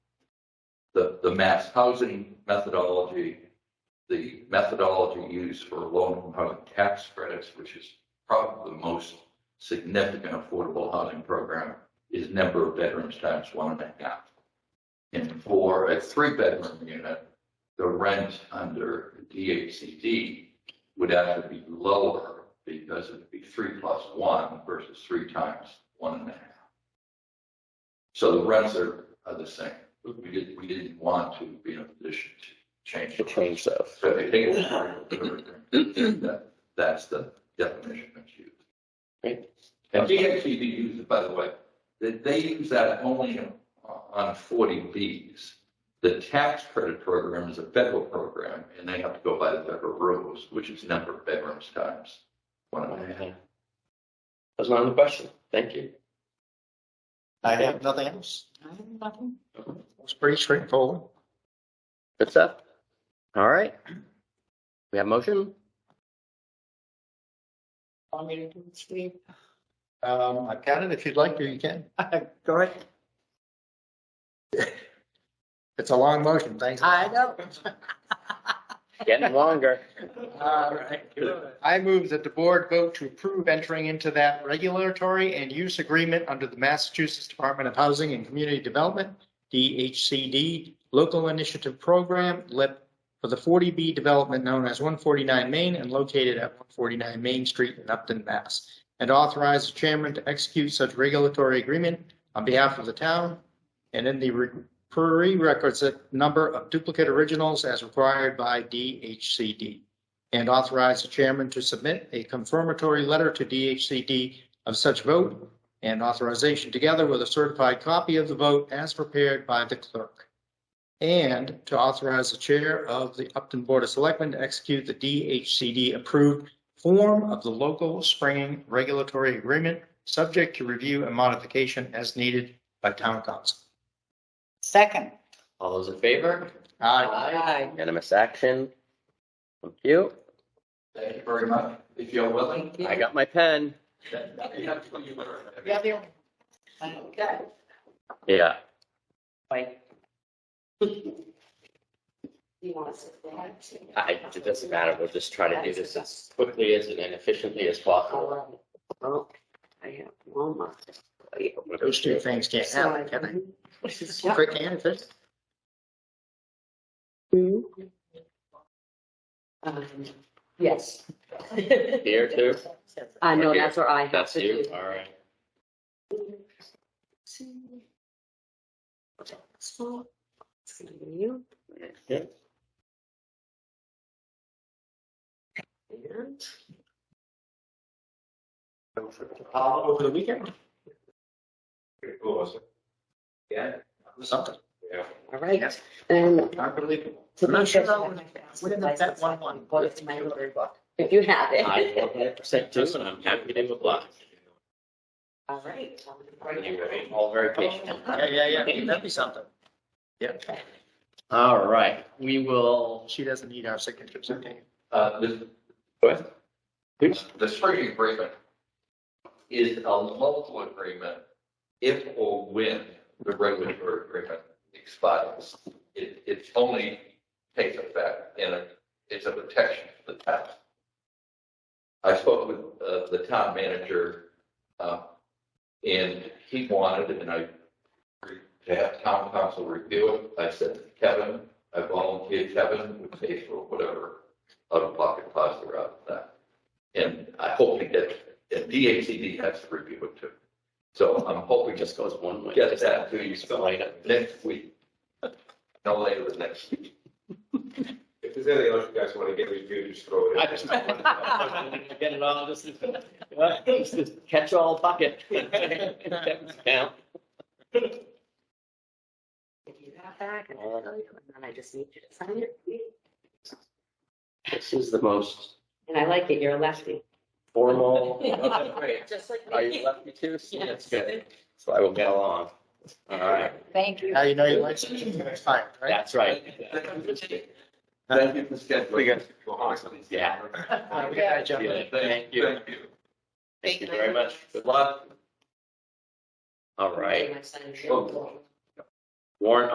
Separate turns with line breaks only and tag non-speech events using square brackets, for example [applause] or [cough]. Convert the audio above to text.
the, the mass housing methodology, the methodology used for low-income housing tax credits, which is probably the most significant affordable housing program, is number of bedrooms times one and a half. And for a three-bedroom unit, the rent under DHCD would actually be lower because it would be three plus one versus three times one and a half. So the rents are, are the same. We didn't, we didn't want to be in a position to change.
to
the
change those.
So I think it's part of the- that- that's the definition that's used.
Great.
And DHCD uses, by the way, they, they use that only on- on forty Bs. The tax credit program is a federal program and they have to go by the federal rules, which is number of bedrooms times one and a half.
That was my only question. Thank you.
I have nothing else. It's pretty straightforward.
Good stuff. All right. We have motion?
I mean, Steve. Um, I've got it. If you'd like to, you can.
[laughs] Go ahead.
It's a long motion. Thanks.
I know.
Getting longer.
All right. I move that the board vote to approve entering into that regulatory and use agreement under the Massachusetts Department of Housing and Community Development, DHCD, Local Initiative Program, LIP, for the 40B development known as 149 Main and located at 149 Main Street in Upton, Mass. And authorize the chairman to execute such regulatory agreement on behalf of the town and in the re- prerequisite number of duplicate originals as required by DHCD and authorize the chairman to submit a confirmatory letter to DHCD of such vote and authorization together with a certified copy of the vote as prepared by the clerk. And to authorize the chair of the Upton Board of Selectmen to execute the DHCD approved form of the local spring regulatory agreement, subject to review and modification as needed by town council.
Second.
All those in favor?
Aye.
Unanimous action. Thank you.
Thank you very much. If you're willing.
I got my pen.
then you have to- you are-
You're the only one. Okay.
Yeah.
Wait. You want to sit down?
I, it doesn't matter. We'll just try to do this as quickly as and efficiently as possible.
Oh,
Well, I have Wilma.
Those two things can't happen, can they? Quick hand, if it's-
um, Yes.
Here too?
I know,
Okay.
that's where I have
That's
to
you?
do.
All right.
So, it's gonna be you.
Yeah.
And
Uh, Over the weekend,
Yeah.
something.
All right, um, and
Unbelievable.
We're in the bet one one.
Go to my library book, if you have
I
it.
one hundred percent do, and I'm happy to oblige.
All right.
You were all very patient.
Yeah, yeah, yeah, that'd be something.
All right. We will.
She doesn't need our signatures, okay?
Uh, this,
What? Oops.
The spring agreement is a local agreement if or when the regulatory agreement expires. It, it only takes effect and it- it's a protection for the town. I spoke with, uh, the town manager, uh, and he wanted, and I, to have town council review it. I said, Kevin, I volunteered Kevin, would pay for whatever out-of-pocket costs are out of that. And I hope we get, and DHCD has to review it too. So I'm hoping
It
just
just goes one way.
get that to you
Just light up.
next week. No later than next week.
If there's anything else you guys want to get reviewed, just throw it. in.
I just get it all, just, just this catch-all bucket. [laughs] Count.
If you have that, and I'll tell you, and then I just need you to sign it.
This is the most
And I like it, you're a lefty.
formal.
[laughs] Just like
Oh, Are you
me.
lefty too? See, That's good. So I will get along. All right,
Thank you.
Now you know you like signatures next time, right?
that's right.
[laughs] Thank you for scheduling.
We got-
Awesome.
Yeah.
Uh, we gotta jump in.
Yeah, Thank you.
Thank you.
Thank you very much. Good luck. All right,
My son.
Oh.
Warren.